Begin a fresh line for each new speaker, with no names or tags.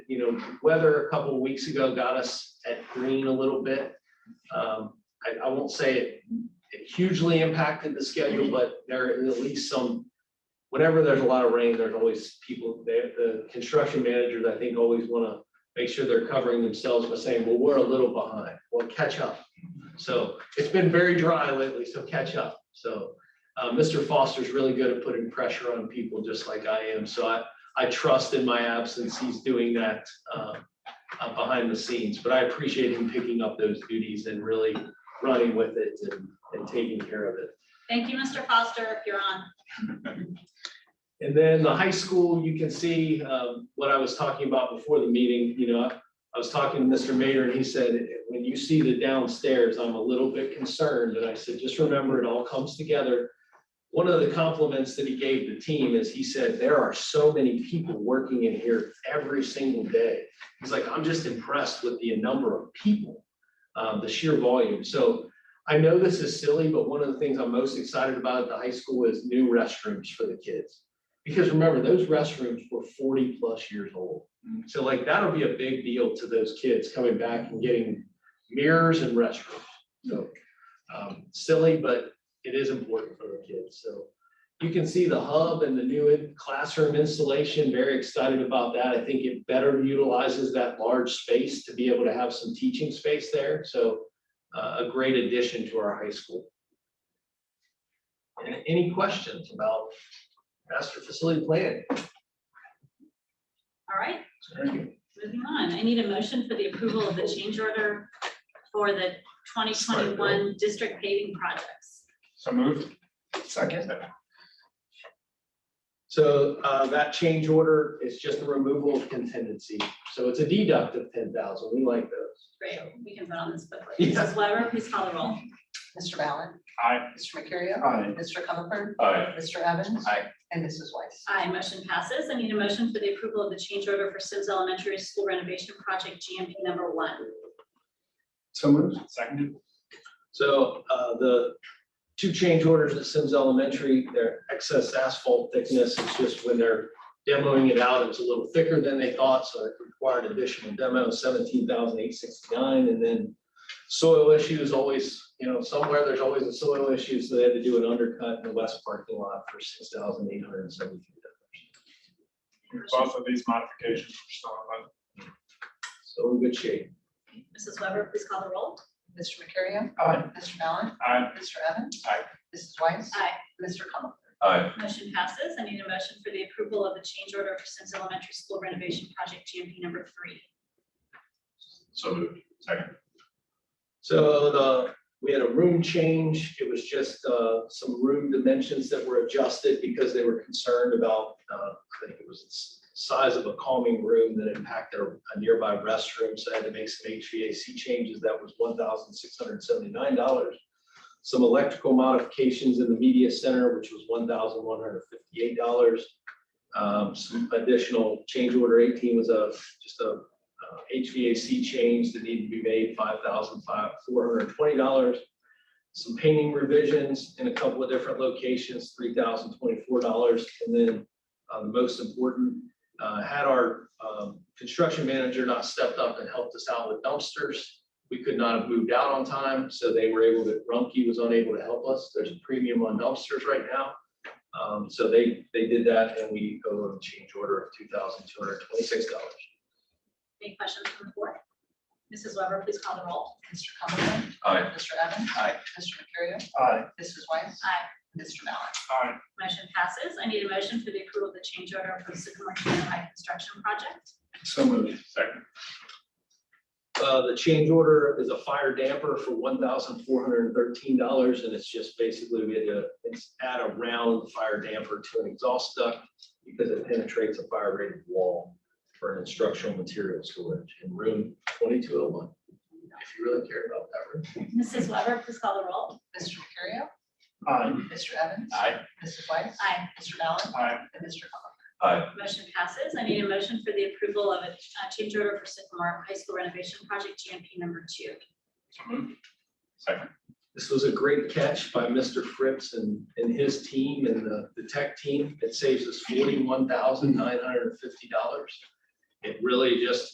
you know, weather a couple of weeks ago got us at green a little bit. Um, I, I won't say it- it hugely impacted the schedule, but there are at least some, whenever there's a lot of rain, there's always people, the, the construction managers, I think, always want to make sure they're covering themselves by saying, well, we're a little behind, well, catch up. So it's been very dry lately, so catch up. So uh, Mr. Foster's really good at putting pressure on people just like I am. So I, I trust in my absence, he's doing that uh, uh, behind the scenes. But I appreciate him picking up those duties and really running with it and, and taking care of it.
Thank you, Mr. Foster, you're on.
And then the high school, you can see um, what I was talking about before the meeting, you know, I- I was talking to Mr. Mayor and he said, when you see the downstairs, I'm a little bit concerned. And I said, just remember, it all comes together. One of the compliments that he gave the team is he said, there are so many people working in here every single day. He's like, I'm just impressed with the number of people, uh, the sheer volume. So I know this is silly, but one of the things I'm most excited about at the high school is new restrooms for the kids. Because remember, those restrooms were forty plus years old. So like that'll be a big deal to those kids coming back and getting mirrors and restrooms. So um, silly, but it is important for the kids. So you can see the hub and the new in- classroom installation, very excited about that. I think it better utilizes that large space to be able to have some teaching space there. So uh, a great addition to our high school. And any questions about master facility plan.
All right, moving on. I need a motion for the approval of the change order for the twenty twenty-one district paving projects.
So moved. Second.
So uh, that change order is just the removal of contingency. So it's a deduct of ten thousand. We like those.
Great, we can vote on this quickly.
Yeah.
Mrs. Weber, please call the roll.
Mr. Ballard,
Aye.
Mr. Mercurio,
Aye.
Mr. Comer,
Aye.
Mr. Evans.
Aye.
And Mrs. Weiss.
Aye, motion passes. I need a motion for the approval of the change order for Sims Elementary School renovation project GMP number one.
So moved. Seconded.
So uh, the two change orders at Sims Elementary, their excess asphalt thickness is just when they're demoing it out, it was a little thicker than they thought, so it required additional demo, seventeen thousand eight sixty-nine. And then soil issues always, you know, somewhere there's always a soil issue, so they had to do an undercut in the west parking lot for six thousand eight hundred and seventy-three dollars.
Both of these modifications are still on.
So we're in good shape.
Mrs. Weber, please call the roll.
Mr. Mercurio,
Aye.
Mr. Ballard,
Aye.
Mr. Evans.
Aye.
Mrs. Weiss.
Aye.
Mr. Comer.
Aye.
Motion passes. I need a motion for the approval of the change order for Sims Elementary School renovation project GMP number three.
So moved. Second.
So the, we had a room change. It was just uh, some room dimensions that were adjusted because they were concerned about, uh, I think it was the s- size of a calming room that impacted a a nearby restroom. So I had to make some HVAC changes. That was one thousand six hundred and seventy-nine dollars. Some electrical modifications in the media center, which was one thousand one hundred and fifty-eight dollars. Um, Some additional change order eighteen was a, just a uh, HVAC change that needed to be made, five thousand five, four hundred and twenty dollars. Some painting revisions in a couple of different locations, three thousand twenty-four dollars. And then, uh, the most important, uh, had our, um, construction manager not stepped up and helped us out with dumpsters, we could not have moved out on time, so they were able to, Rumpke was unable to help us. There's a premium on dumpsters right now. Um, so they, they did that and we owe a change order of two thousand two hundred twenty-six dollars.
Any questions from the board? Mrs. Weber, please call the roll.
Mr. Comer.
Aye.
Mr. Evans.
Aye.
Mr. Mercurio,
Aye.
Mrs. Weiss.
Aye.
Mr.
Aye.
Ballard.
Motion passes. I need a motion for the approval of the change order for Sycamore Canyon High Construction Project.
So moved. Second.
Uh, the change order is a fire damper for one thousand four hundred and thirteen dollars, and it's just basically we had to it's add a round fire damper to an exhaust duct because it penetrates a fire rated wall for an instructional material storage in room twenty-two oh one. If you really care about that room.
Mrs. Weber, please call the roll.
Mr. Mercurio,
Aye.
Mr. Evans.
Aye.
Mrs. Weiss.
Aye.
Mr. Ballard.
Aye.
And Mr. Comer.
Motion passes. I need a motion for the approval of a uh, change order for Sycamore High School renovation project GMP number two.
So moved. Second.
This was a great catch by Mr. Fritz and, and his team and the, the tech team. It saves us forty-one thousand nine hundred and fifty dollars. It really just